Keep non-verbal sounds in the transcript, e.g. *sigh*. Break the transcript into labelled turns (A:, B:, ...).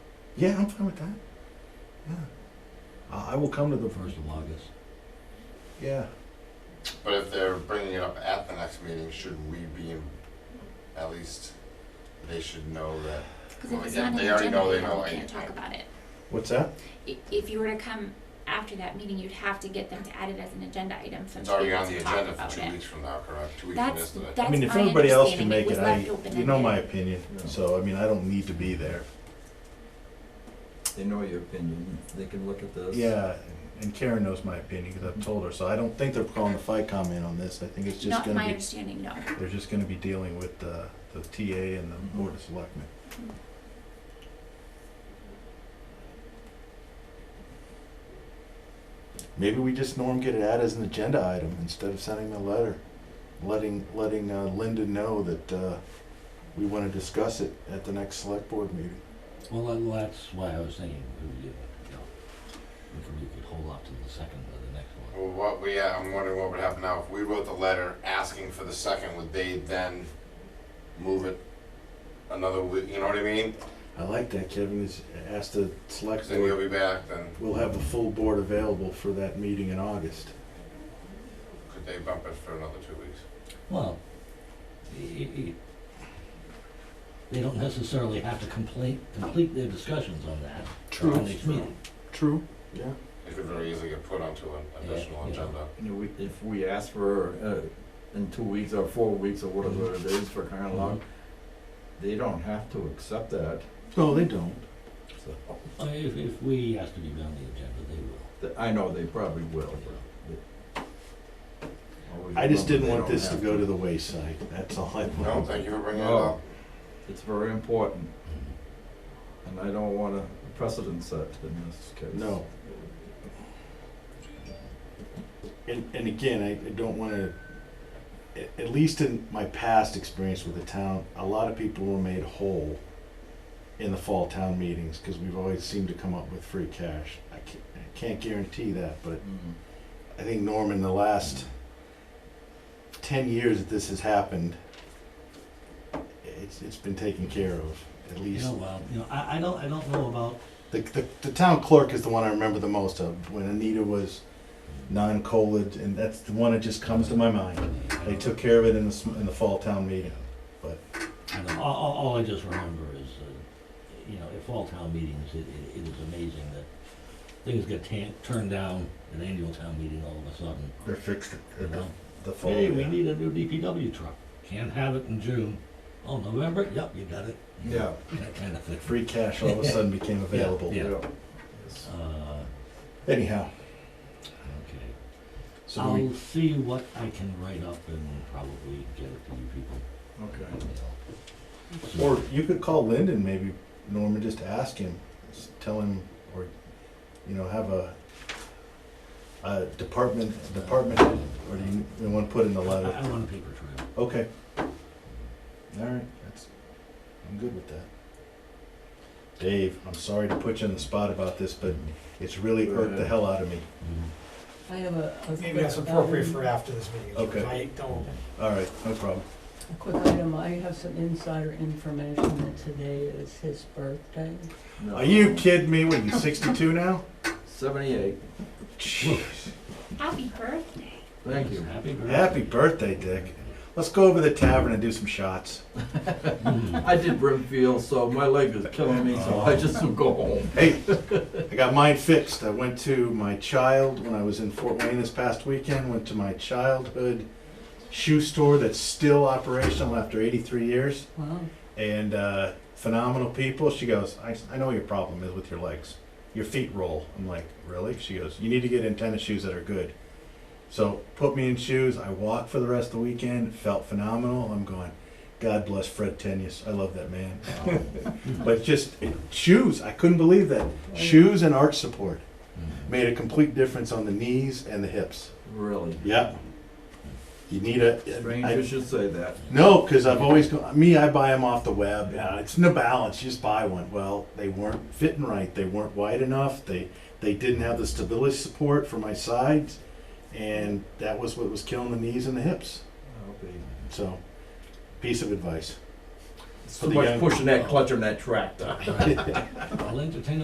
A: Yeah, I'm fine with that. Yeah. I I will come to the first of August. Yeah.
B: But if they're bringing it up at the next meeting, should we be, in- at least, they should know that,
C: Because
B: Well,
C: if it's
B: yeah,
C: not on
B: they
C: the
B: already know
C: agenda,
B: they
C: then
B: know
C: we
B: I
C: can't
B: need
C: talk
B: it.
C: about it.
A: What's that?
C: I- If you were to come after that meeting, you'd have to get them to add it as an agenda item so
B: it's
C: that we
B: already
C: can
B: on
C: talk
B: the agenda
C: about
B: for two
C: it.
B: weeks from now, correct? Two weeks from
C: That's,
B: yesterday.
C: that's
A: I mean, if
C: my
A: everybody else can
C: understanding.
A: make
C: was
A: it, I,
C: left
A: you know
C: open-ended.
A: my opinion. So, I mean, I don't need to be there.
D: They know your opinion, they can look at this.
A: Yeah, and Karen knows my opinion because I've told her. So I don't think they're calling the fight comment on this. I think it's just
C: Not
A: going
C: my
A: to be,
C: understanding, no.
A: they're just going to be dealing with the, the TA and the Board of Selectmen. Maybe we just norm get it out as an agenda item instead of sending a letter, letting, letting uh, Linda know that, uh, we wanna discuss it at the next select board meeting.
E: Well, then that's why I was thinking, we, uh, you know, we could, we could hold off till the second or the next one.
B: Well, what we, yeah, I'm wondering what would happen now if we wrote the letter asking for the second, would they then move it another week, you know what I mean?
A: I like that, Kevin, is ask the select
B: Cause then you'll
A: board,
B: be back, then
A: we'll have the full board available for that meeting in August.
B: could they bump it for another two weeks?
E: Well, i- i- i- they don't necessarily have to complete, complete their discussions on that.
A: True.
E: on each meeting.
A: True. Yeah.
B: It could very easily get put onto an additional
E: Yeah, yeah.
B: agenda.
D: You know, we- If we ask for, uh, in two weeks or four weeks or whatever it is for kind of long, they don't have to accept that,
A: No, they don't.
D: so,
E: I mean, If, if we ask to be on the agenda, they will.
D: th- I know they probably will. Always
A: I just didn't
D: remember they
A: want
D: don't
A: this to
D: have
A: go to the wayside, that's all I want.
B: No, thank you for bringing it
D: No.
B: up.
D: It's very important,
E: Mm-hmm.
D: and I don't want a precedent set in this case.
A: No. And, and again, I, I don't wanna, at, at least in my past experience with the town, a lot of people were made whole in the fall town meetings, cause we've always seemed to come up with free cash. I can't, I can't guarantee that, but
D: Mm.
A: I think Norm, in the last ten years that this has happened, it's, it's been taken care of, at
E: You
A: least.
E: know, well, you know, I, I don't, I don't know about,
A: The, the, the town clerk is the one I remember the most of, when Anita was non-colid, and that's the one that just comes to my mind. They took care of it in the, sm- in the fall town meeting.
E: I don't, all, all- all I just remember is, uh, you know, at fall town meetings, it, it- it is amazing that things get tan, turned down at annual town meeting all of a sudden,
A: They fixed it
E: you know?
A: the fall.
E: Hey, we need a new DPW truck. Can't have it in June. Oh, November? Yep, you got it.
D: Yeah.
E: That kind of thing.
A: Free cash all
E: *laughs*
A: of a sudden became available.
E: Yeah.
D: Yes.
E: Uh,
A: Anyhow,
E: okay.
A: so do we,
E: I'll see what I can write up and probably get it to you people.
D: Okay.
E: you know.
A: or you could call Lyndon maybe, Norman, just ask him, just tell him, or, you know, have a, a department, department, or do you, uh, you wanna put in the
E: I,
A: letter?
E: uh, I want a paper trail.
A: Okay. All right, that's, I'm good with that. Dave, I'm sorry to put you on the spot about this, but it's really irked the hell out of me.
E: Mhm.
F: I have a. a
G: Maybe
F: quick
G: that's appropriate
F: item-
G: for after this meeting.
A: Okay.
G: I don't,
A: All right, no problem.
F: A quick item, I have some insider information that today is his birthday.
D: No.
A: Are you kidding me? What, are you sixty-two now?
D: Seventy-eight,
A: Jeez.
C: Happy birthday.
E: *laughs*
D: thank you.
E: Happy birthday.
A: Happy birthday, Dick. Let's go over to the tavern and do some shots.
E: Mhm.
D: I did Brimfield, so my leg is killing me, so I just will go home.
A: Hey, I got mine fixed. I went to my child, when I was in Fort Wayne this past weekend, went to my childhood shoe store that's still operational after eighty-three years.
F: Wow,
A: and uh, phenomenal people. She goes, I, I know what your problem is with your legs. Your feet roll. I'm like, really? She goes, you need to get in tennis shoes that are good. So put me in shoes. I walked for the rest of the weekend. Felt phenomenal. I'm going, God bless Fred Tenius. I love that man. but just it, shoes. I couldn't believe that. Shoes and arch support
E: Mhm.
A: made a complete difference on the knees and the hips.
D: Really?
A: Yeah. You need a. I-
D: Strangers should say that.
A: no, because I've always go me. I buy them off the web. Yeah, it's no balance. You just buy one. Well, they weren't fitting right. They weren't wide enough. They they didn't have the stability support for my sides, and that was what was killing the knees and the hips.
D: I'll be-
A: So, piece of advice. *laughs*
D: It's
A: For
D: too
A: the
D: much
A: young-
D: pushing that clutch on that tractor.
E: I'll entertain a